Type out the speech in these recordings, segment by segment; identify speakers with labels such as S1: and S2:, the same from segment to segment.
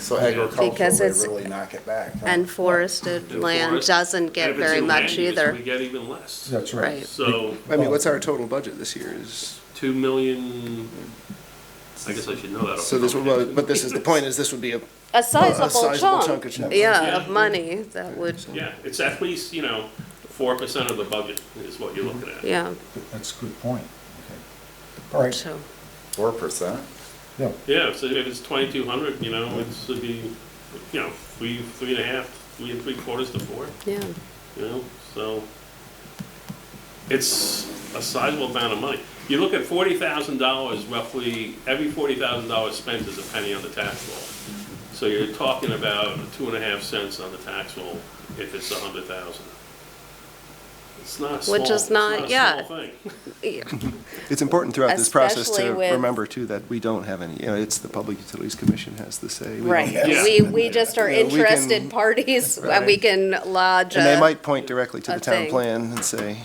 S1: So
S2: Because
S1: agricultural,
S2: it's-
S1: they really knock it back. huh?
S2: And forested
S3: And
S2: land
S3: forest-
S2: doesn't
S3: and
S2: get
S3: if it's
S2: very
S3: in
S2: much
S3: land use, We
S2: either.
S3: get even less.
S4: That's
S2: Right.
S4: right.
S3: So,
S1: I
S5: Oh.
S1: mean, what's our total budget this year is,
S3: two million, I guess I should know that. off
S1: so
S3: the
S1: this,
S3: top
S1: would-
S3: of my head.
S1: well, but this is, the point is, this would be a
S2: A
S1: sizable
S2: sizable
S1: sizable chunk. chunk of chunk.
S2: chunk,
S3: Yeah.
S2: yeah, of money that would,
S3: Yeah, it's at least, you know, four percent of the budget is what you're looking at.
S2: yeah,
S4: That's a good point. Okay. All right,
S2: so,
S1: four percent.
S4: yeah,
S3: Yeah, so if it's twenty-two hundred, you know, it's, it'd be, you know, three, three and a half, three and three quarters to four,
S2: yeah.
S3: you know, so. It's a sizable amount of money. You look at forty thousand dollars roughly, every forty thousand dollars spent is a penny on the tax roll. So you're talking about two and a half cents on the tax roll if it's a hundred thousand. It's not a small,
S2: Which
S3: it's
S2: is not-
S3: not
S2: yeah.
S3: a small thing.
S2: Yeah.
S5: It's important throughout this process
S2: Especially
S5: to
S2: with-
S5: remember too that we don't have any, you know, it's the Public Utilities Commission has the say. We don't
S2: Right,
S5: have-
S3: Yeah.
S2: we, we just are
S5: Yeah, we can-
S2: interested parties, and we can lodge
S5: And they
S2: a,
S5: might point directly to
S2: Uh, a
S5: the town
S2: thing.
S5: plan and say,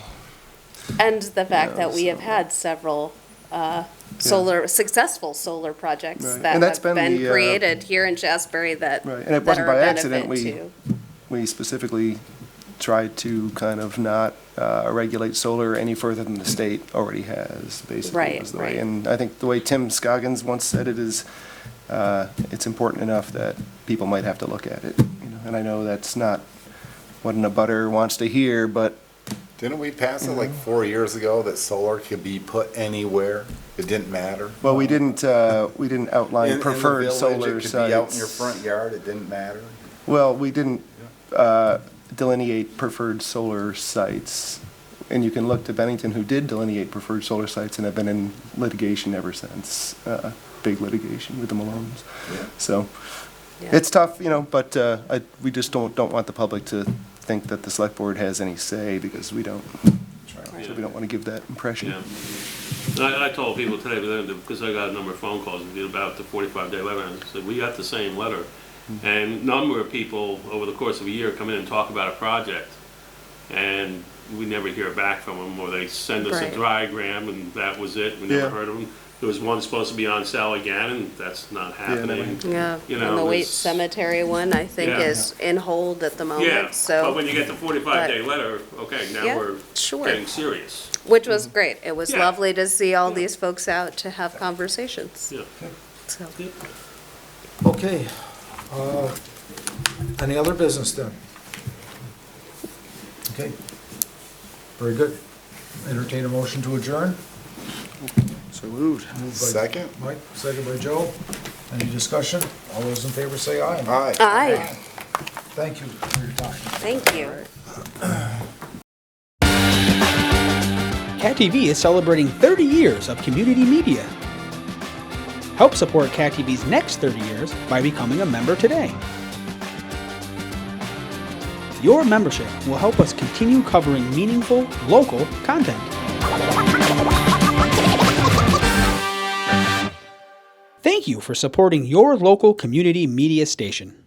S2: and the fact
S5: Yeah,
S2: that we have
S5: so-
S2: had several, uh, solar, successful solar projects
S5: Right.
S2: that
S5: And that's
S2: have
S5: been
S2: been
S5: the, uh,
S2: created here in Shasberry that,
S5: Right, and it
S2: that
S5: wasn't
S2: are a
S5: by accident
S2: benefit
S5: we-
S2: to.
S5: we specifically tried to kind of not uh, regulate solar any further than the state already has, basically.
S2: Right,
S5: was the way.
S2: right.
S5: And I think the way Tim Scoggins once said it is, uh, it's important enough that people might have to look at it. you know. And I know that's not what an abutter wants to hear, but
S1: Didn't we pass it like four years ago that solar could be put anywhere? It didn't matter?
S5: Well, we didn't, uh, we didn't
S1: In-
S5: outline
S1: in the
S5: preferred
S1: village,
S5: solar
S1: It could be out in your
S5: sites.
S1: front yard, it didn't matter.
S5: Well, we didn't uh, delineate preferred solar sites. And you can look to Bennington, who did delineate preferred solar sites and have been in litigation ever since, uh, big litigation with the Malones.
S1: Yeah.
S5: So
S2: Yeah.
S5: it's tough, you know, but uh, I- we just don't, don't want the public to think that the select board has any say because we don't. So we don't want to give that impression.
S3: Yeah. And I, I told people today, but then- because I got a number of phone calls about the forty-five day letter, and I said, we got the same letter. And a number of people over the course of a year come in and talk about a project, and we never hear back from them, or they send us a
S2: Right.
S3: diagram, and that was it, we never
S5: Yeah.
S3: heard of them. There was one supposed to be on sale again, and that's not
S5: never
S3: happening.
S2: Yeah,
S3: You
S2: and the
S3: know,
S2: Waite
S3: it's-
S2: Cemetery one, I think,
S3: Yeah.
S2: is in hold at the
S3: Yeah,
S2: moment,
S3: but
S2: so,
S3: when you get the forty-five day letter, okay, now
S2: Yeah,
S3: we're
S2: sure.
S3: getting serious.
S2: which was great. It was
S3: Mm-hmm. Yeah.
S2: lovely to see all these folks out to have conversations,
S3: Yeah.
S2: so.
S4: okay. Uh, Any other business then? Okay, very good. Entertain a motion to adjourn?
S5: So moved.
S4: Moved by
S1: Second?
S4: Mike, second by Joe. Any discussion? All those in favor say aye.
S1: Aye.
S2: Aye,
S4: Thank you for your time.
S2: thank you.
S6: Cat TV is celebrating 30 years of community media. Help support Cat TV's next 30 years by becoming a member today. Your membership will help us continue covering meaningful, local content. Thank you for supporting your local community media station.